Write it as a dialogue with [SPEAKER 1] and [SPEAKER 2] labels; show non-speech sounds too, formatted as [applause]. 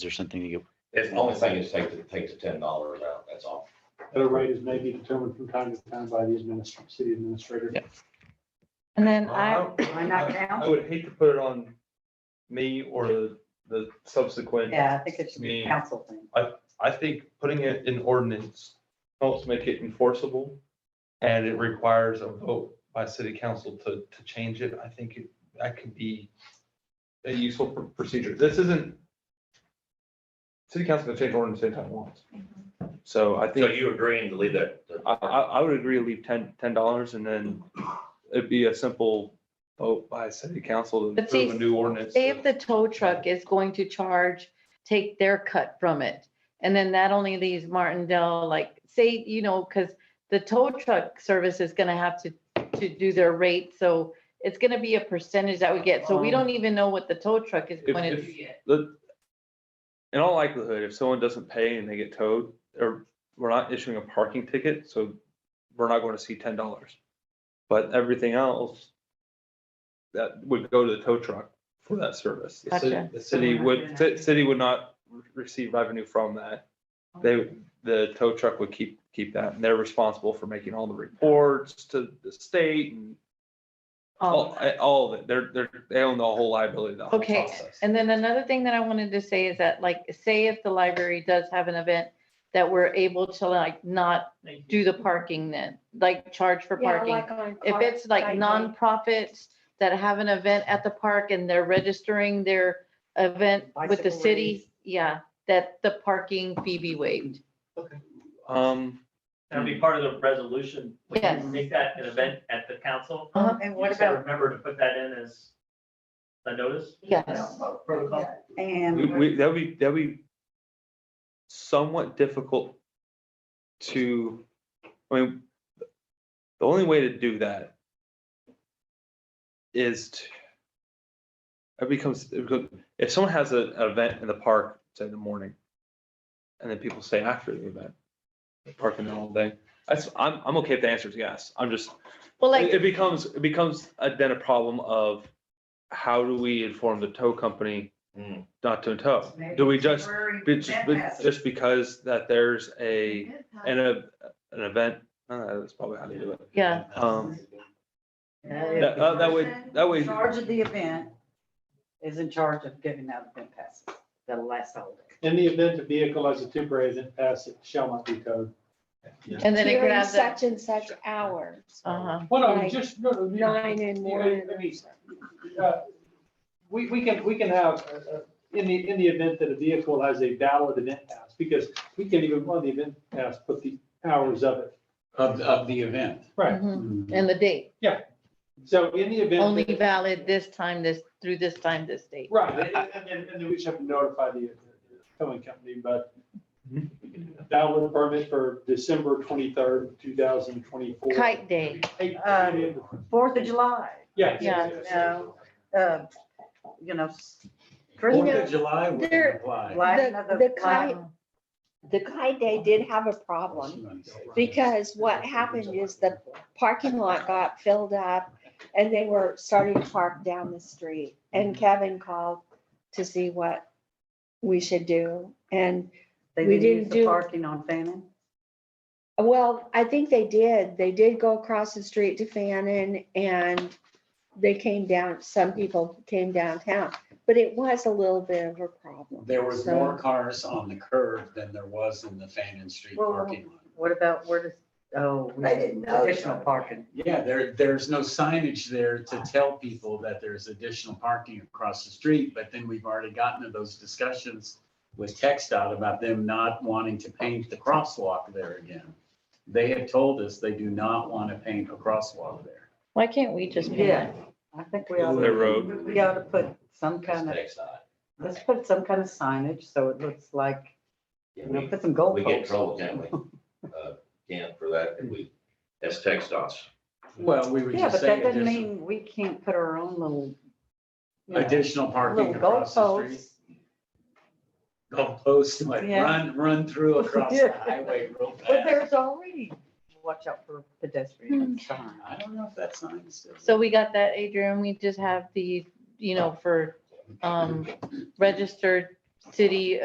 [SPEAKER 1] there something to get?
[SPEAKER 2] It's the only thing is take, the- take the ten dollars out, that's all.
[SPEAKER 3] Their rate is may be determined from time to time by the administr- city administrator.
[SPEAKER 1] Yeah.
[SPEAKER 4] And then I,
[SPEAKER 5] [clears throat] Not now?
[SPEAKER 6] I would hate to put it on me or the, the subsequent.
[SPEAKER 5] Yeah, I think it should be
[SPEAKER 6] Me.
[SPEAKER 5] council thing.
[SPEAKER 6] I think putting it in ordinance helps make it enforceable. And it requires a vote by city council to, to change it. I think it- that could be a useful pr- procedure. This isn't. City council can change ordinance anytime it wants.
[SPEAKER 5] Mm-hmm.
[SPEAKER 6] So I
[SPEAKER 2] So
[SPEAKER 6] think,
[SPEAKER 2] you agreeing to leave that? that-
[SPEAKER 6] I, I, I would agree, leave ten, ten dollars and then it'd be a simple vote by city council to
[SPEAKER 4] But see,
[SPEAKER 6] approve a new ordinance.
[SPEAKER 4] say if the tow truck is going to charge, take their cut from it. And then that only leaves Martindale, like, say, you know, because the tow truck service is gonna have to, to do their rate, so it's gonna be a percentage that we get, so we
[SPEAKER 5] Um,
[SPEAKER 4] don't even know what the tow truck is
[SPEAKER 6] If-
[SPEAKER 4] going to
[SPEAKER 6] if-
[SPEAKER 4] do yet.
[SPEAKER 6] the, in all likelihood, if someone doesn't pay and they get towed, or we're not issuing a parking ticket, so we're not going to see ten dollars. But everything else, that would go to the tow truck for that service. The city-
[SPEAKER 4] Gotcha.
[SPEAKER 6] The city would, ci- city would not re- receive revenue from that.
[SPEAKER 4] Um,
[SPEAKER 6] They, the tow truck would keep, keep that, and they're responsible for making all the reports to the state and all, eh,
[SPEAKER 4] Um,
[SPEAKER 6] all of it. They're, they're, they own the whole liability, of the whole
[SPEAKER 4] Okay,
[SPEAKER 6] process.
[SPEAKER 4] And then another thing that I wanted to say is that, like, say if the library does have an event that we're able to like not do the parking then, like charge for parking. If it's like nonprofits that have an event at the park and they're registering their event with the
[SPEAKER 5] Bicycle
[SPEAKER 4] city,
[SPEAKER 5] lanes.
[SPEAKER 4] yeah, that the parking fee be waived.
[SPEAKER 6] Um.
[SPEAKER 7] That'll be part of the resolution. We
[SPEAKER 4] Yes.
[SPEAKER 7] can make that an event at the council.
[SPEAKER 4] Uh-huh.
[SPEAKER 5] And what
[SPEAKER 7] You said
[SPEAKER 5] about,
[SPEAKER 7] Remember to put that in as a notice?
[SPEAKER 4] Yes.
[SPEAKER 7] Protocol.
[SPEAKER 6] We,
[SPEAKER 5] and
[SPEAKER 6] we, that'd be, that'd be somewhat difficult to, I mean, the only way to do that is to, it becomes, it becomes- if someone has a- an event in the park, say in the morning, and then people stay after the event, parking there all day, that's, I'm, I'm okay if the answer is yes, I'm just,
[SPEAKER 4] Well,
[SPEAKER 6] it
[SPEAKER 4] like,
[SPEAKER 6] it becomes, it becomes a- then a problem of how do we inform the tow company
[SPEAKER 2] Hmm.
[SPEAKER 6] not to tow? Do we just, be- just be- just because that there's a, an, a- an event, uh, that's probably how they do it.
[SPEAKER 4] yeah,
[SPEAKER 6] Um, that, uh, that way, that way,
[SPEAKER 5] Charge of the event is in charge of giving out event passes, the last holiday.
[SPEAKER 3] In the event a vehicle has a temporary event pass, it shall not be towed.
[SPEAKER 4] and then it could
[SPEAKER 8] During
[SPEAKER 4] have the,
[SPEAKER 8] such and such hours,
[SPEAKER 4] uh-huh,
[SPEAKER 3] Well, I mean,
[SPEAKER 8] Right.
[SPEAKER 3] just. no, no, you-
[SPEAKER 8] nine and
[SPEAKER 3] Well,
[SPEAKER 8] noon.
[SPEAKER 3] I mean, uh, We, we can, we can have, uh, uh, in the, in the event that a vehicle has a valid event pass, because we can even, on the event pass, put the hours of it.
[SPEAKER 9] of, of the event.
[SPEAKER 3] Right.
[SPEAKER 4] mhm, and the date,
[SPEAKER 3] So in the event.
[SPEAKER 4] only
[SPEAKER 3] that-
[SPEAKER 4] valid this time, this, through this time, this date.
[SPEAKER 3] Right, and- and, and, and then we just have to notify the uh, towing company, but
[SPEAKER 6] Mhm.
[SPEAKER 9] Mm-hmm.
[SPEAKER 3] valid permit for December twenty-third, two thousand twenty-four.
[SPEAKER 4] Kite day,
[SPEAKER 3] Um,
[SPEAKER 5] Fourth of July,
[SPEAKER 3] Yeah.
[SPEAKER 4] Yeah,
[SPEAKER 5] no. uh, you know, s-
[SPEAKER 9] Fourth
[SPEAKER 5] Christmas,
[SPEAKER 9] of July would
[SPEAKER 8] There-
[SPEAKER 9] apply.
[SPEAKER 5] lighten
[SPEAKER 8] The-
[SPEAKER 5] of the
[SPEAKER 8] the
[SPEAKER 5] light-
[SPEAKER 8] The Kai Day did have a problem because what happened is the parking lot got filled up and they were starting to park down the street. And Kevin called to see what we should do. And,
[SPEAKER 5] They
[SPEAKER 8] We
[SPEAKER 5] didn't use
[SPEAKER 8] didn't
[SPEAKER 5] the
[SPEAKER 8] do-
[SPEAKER 5] parking on Fannin.
[SPEAKER 8] well, I think they did. They did go across the street to Fannin and they came down, some people came downtown, but it was a little bit of a problem.
[SPEAKER 9] There was
[SPEAKER 8] So-
[SPEAKER 9] more cars on the curb than there was in the Fannin Street
[SPEAKER 5] Well,
[SPEAKER 9] parking lot.
[SPEAKER 5] What about, where does, oh, we
[SPEAKER 9] I didn't know
[SPEAKER 5] additional
[SPEAKER 9] that.
[SPEAKER 5] parking.
[SPEAKER 9] Yeah, there, there's no signage there to tell people that there's additional parking across the street, but then we've already gotten to those discussions with Text out about them not wanting to paint the crosswalk there again. They had told us they do not want to paint a crosswalk there.
[SPEAKER 4] Why can't we just? pay
[SPEAKER 5] Yeah, I think we ought,
[SPEAKER 6] their road.
[SPEAKER 5] we ought to put some kind of,
[SPEAKER 2] Next side.
[SPEAKER 5] let's put some kind of signage, so it looks like, you know,
[SPEAKER 2] We
[SPEAKER 5] put some gold
[SPEAKER 2] we get in
[SPEAKER 5] posts.
[SPEAKER 2] trouble, can't we? Uh, Can't for that, if we, that's text us.
[SPEAKER 9] Well, we were
[SPEAKER 5] Yeah,
[SPEAKER 9] just
[SPEAKER 5] but that
[SPEAKER 9] saying
[SPEAKER 5] doesn't
[SPEAKER 9] additional,
[SPEAKER 5] mean we can't put our own little, you know,
[SPEAKER 9] additional parking
[SPEAKER 5] little gold
[SPEAKER 9] across the street.
[SPEAKER 5] posts.
[SPEAKER 9] Gold posts, like
[SPEAKER 5] Yeah.
[SPEAKER 9] run, run through across the
[SPEAKER 5] [laughs] Yeah.
[SPEAKER 9] highway real
[SPEAKER 5] But
[SPEAKER 9] fast.
[SPEAKER 5] there's already, watch out for pedestrian sign.
[SPEAKER 9] Hmm. I don't know if that sign is still.
[SPEAKER 4] So we got that, Adrian, we just have the, you know, for, um, registered city